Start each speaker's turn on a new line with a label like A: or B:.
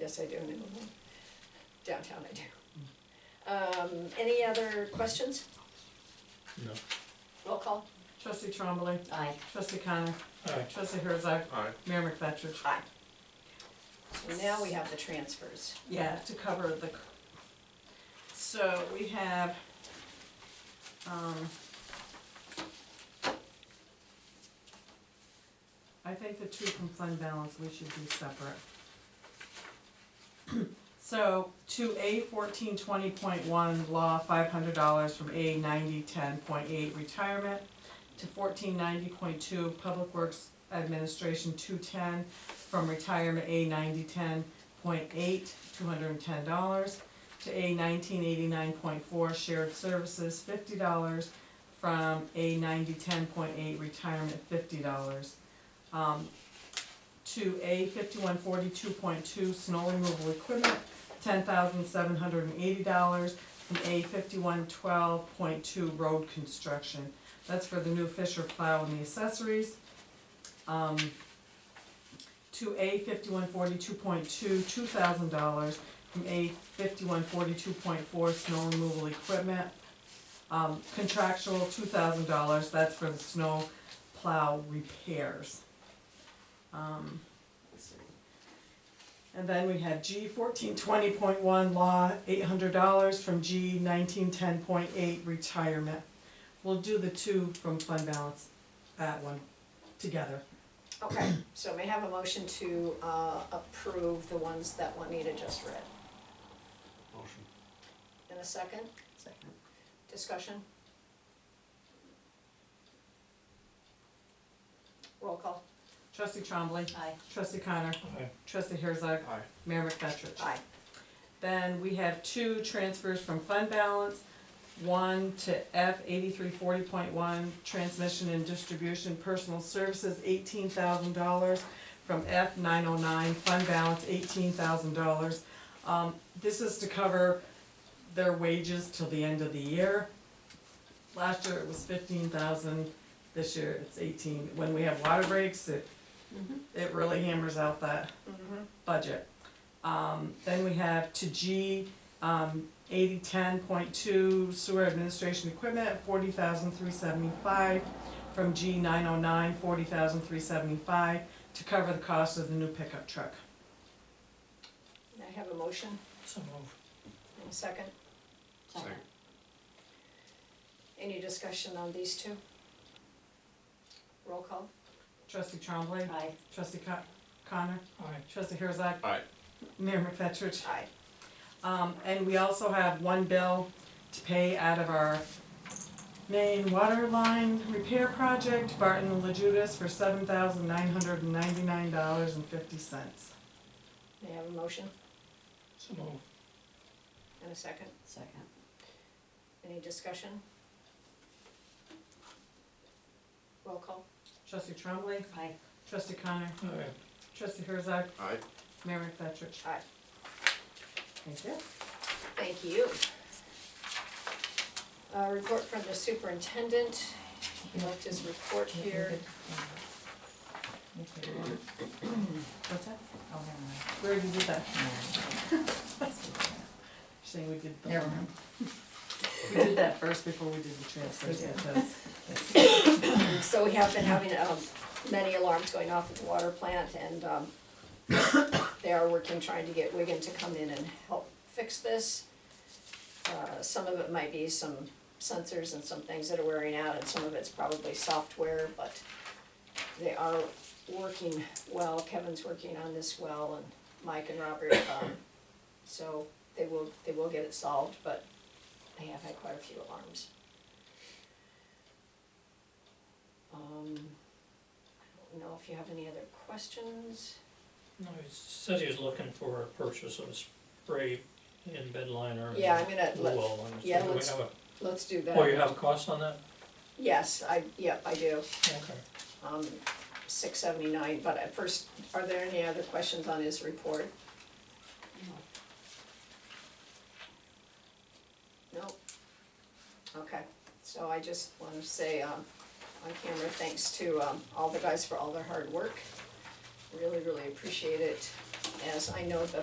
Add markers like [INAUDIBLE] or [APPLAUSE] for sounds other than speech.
A: yes, I do, and downtown I do. Um, any other questions?
B: No.
A: Roll call?
C: Trustee Trombley,
A: Aye.
C: trustee Connor,
B: Aye.
C: trustee Herzog,
D: Alright,
C: Mayor McFetrich.
A: Aye. So now we have the transfers.
C: Yeah, to cover the, c- so we have, um, I think the two from fund balance, we should be separate. [CLEARS THROAT] So to A fourteen twenty point one, law, five hundred dollars from A ninety ten point eight, retirement, to fourteen ninety point two, public works administration, two ten, from retirement, A ninety ten point eight, two hundred and ten dollars, to A nineteen eighty-nine point four, shared services, fifty dollars, from A ninety ten point eight, retirement, fifty dollars. Um, to A fifty-one forty-two point two, snow removal equipment, ten thousand seven hundred and eighty dollars, from A fifty-one twelve point two, road construction. That's for the new Fisher plow and the accessories. Um, to A fifty-one forty-two point two, two thousand dollars, from A fifty-one forty-two point four, snow removal equipment. Um, contractual, two thousand dollars, that's for the snow plow repairs. Um, and then we have G fourteen twenty point one, law, eight hundred dollars, from G nineteen ten point eight, retirement. We'll do the two from fund balance, that one, together.
A: Okay, so may I have a motion to, uh, approve the ones that Juanita just read?
D: motion.
A: In a second? Second. Discussion? Roll call?
C: Trustee Trombley.
A: Aye.
C: Trustee Connor.
B: Aye.
C: Trustee Herzog.
D: Aye.
C: Mayor McFetrich.
A: Aye.
C: Then we have two transfers from fund balance. One to F eighty-three forty point one, transmission and distribution, personal services, eighteen thousand dollars. From F nine oh nine, fund balance, eighteen thousand dollars. Um, this is to cover their wages till the end of the year. Last year it was fifteen thousand, this year it's eighteen. When we have water breaks, it, it really hammers out that
A: Mm-hmm.
C: budget. Um, then we have to G, um, eighty ten point two sewer administration equipment, forty thousand three seventy-five. From G nine oh nine, forty thousand three seventy-five, to cover the cost of the new pickup truck.
A: May I have a motion?
B: So moved.
A: In a second?
D: Second.
A: Any discussion on these two? Roll call?
C: Trustee Trombley,
A: Aye.
C: trustee Co- Connor,
B: Aye.
C: trustee Herzog.
D: Aye.
C: Mayor McFetrich.
A: Aye.
C: Um, and we also have one bill to pay out of our main water line repair project, Barton Lejudas, for seven thousand nine hundred and ninety-nine dollars and fifty cents.
A: May I have a motion?
B: So uh, moved.
A: In a second?
E: Second.
A: Any discussion? Roll call?
C: Trustee Trombley,
E: Aye.
C: trustee Connor,
B: Aye.
C: trustee Herzog,
D: Aye.
C: Mayor McFetrich.
A: Aye.
C: Thank you.
A: Thank you. Uh, report from the superintendent, he left his report here.
C: What's that?
E: Oh, never
C: We already did that.
E: [LAUGHS] mind.
C: Saying we did the.
E: Never mind.
C: [LAUGHS] We did that first before we did the transfers,
E: Yeah.
C: because
A: So we have been having, um, many alarms going off at the water plant and, um, they are working, trying to get Wigan to come in and help fix this. Uh, some of it might be some sensors and some things that are wearing out, and some of it's probably software, but they are working well, Kevin's working on this well, and Mike and Robert, um, so they will, they will get it solved, but they have had quite a few alarms. Um, I don't know if you have any other questions?
B: No, he said he was looking for a purchase of a spray in bed liner. and
A: Yeah, I'm gonna
B: blue
A: let-
B: wall liner. So
A: yeah,
B: do we
A: let's-
B: have a-
A: Let's do that.
B: Oh, you have a cost on that?
A: Yes, I, yep, I do,
B: Okay.
A: um, six seventy-nine, but at first, are there any other questions on his report? No? Okay, so I just wanna say, um, on camera, thanks to, um, all the guys for all their hard work. Really, really appreciate it, as I know the